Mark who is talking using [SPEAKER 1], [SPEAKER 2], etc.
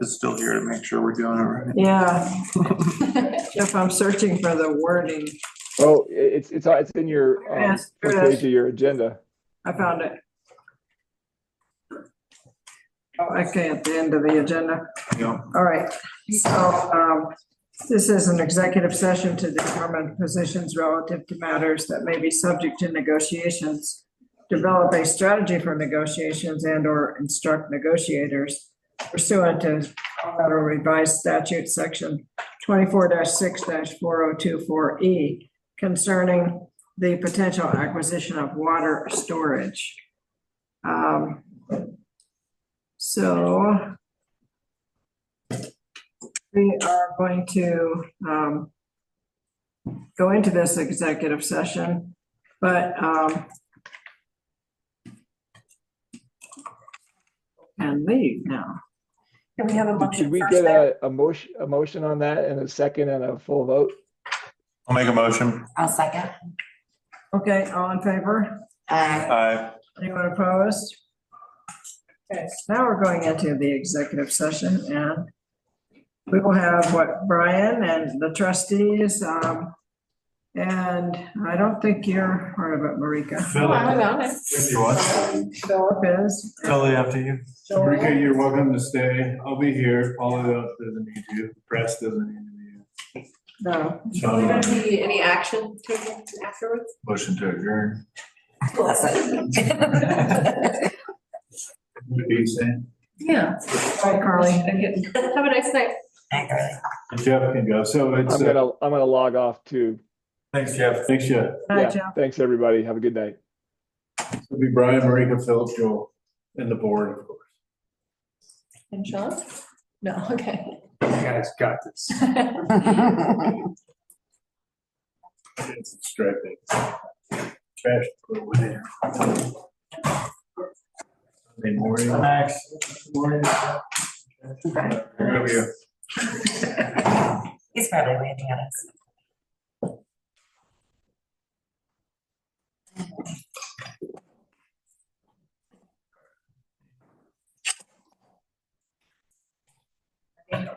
[SPEAKER 1] is still here to make sure we're doing it right.
[SPEAKER 2] Yeah. Jeff, I'm searching for the wording.
[SPEAKER 3] Oh, i- it's, it's, it's in your,
[SPEAKER 2] There it
[SPEAKER 3] um,
[SPEAKER 2] is, there
[SPEAKER 3] first
[SPEAKER 2] it
[SPEAKER 3] page
[SPEAKER 2] is.
[SPEAKER 3] of your agenda.
[SPEAKER 2] I found it. Oh, Okay, at the end of the agenda.
[SPEAKER 1] Yeah.
[SPEAKER 2] All right, so um, this is an executive session to determine positions relative to matters that may be subject to negotiations, develop a strategy for negotiations and/or instruct negotiators pursuant to Colorado Revised Statute Section 24-6-4024E E, concerning the potential acquisition of water storage. Um, So we are going to um, go into this executive session, but um, and leave now.
[SPEAKER 4] Can we have a motion
[SPEAKER 3] Should we
[SPEAKER 4] first
[SPEAKER 3] get
[SPEAKER 4] there?
[SPEAKER 3] a, a motion, a motion on that and a second and a full vote?
[SPEAKER 1] I'll make a motion.
[SPEAKER 4] I'll second.
[SPEAKER 2] Okay, all in favor?
[SPEAKER 4] Aye.
[SPEAKER 1] Aye.
[SPEAKER 2] Anyone opposed? Okay, so now we're going into the executive session and we will have what Brian and the trustees, um, and I don't think you're part of it, Marika.
[SPEAKER 1] Philly,
[SPEAKER 5] If you want.
[SPEAKER 2] Philip is.
[SPEAKER 1] Philly, after you.
[SPEAKER 5] Rika, you're welcome to stay. I'll be here. Paula doesn't need you. Press doesn't need
[SPEAKER 2] No,
[SPEAKER 5] you.
[SPEAKER 6] Are there going
[SPEAKER 5] So, uh,
[SPEAKER 6] to be any action taken afterwards?
[SPEAKER 5] motion to adjourn.
[SPEAKER 4] Bless it.
[SPEAKER 5] What do you say?
[SPEAKER 6] Yeah.
[SPEAKER 2] Hi, Carly.
[SPEAKER 6] Have a nice night.
[SPEAKER 5] Jeff can go. So it's,
[SPEAKER 3] I'm
[SPEAKER 5] uh,
[SPEAKER 3] gonna, I'm gonna log off too.
[SPEAKER 1] Thanks, Jeff.
[SPEAKER 5] thanks, Jeff.
[SPEAKER 2] Hi,
[SPEAKER 3] Yeah,
[SPEAKER 2] Jeff.
[SPEAKER 3] thanks, everybody. Have a good night.
[SPEAKER 5] It'll be Brian, Marika, Philip, Joel, and the board, of course.
[SPEAKER 6] And Sean? No, okay.
[SPEAKER 5] You guys got this. It's distracting. Trash, put it in. Sunday morning. Max. Morning. There we go.
[SPEAKER 4] He's probably waiting at us.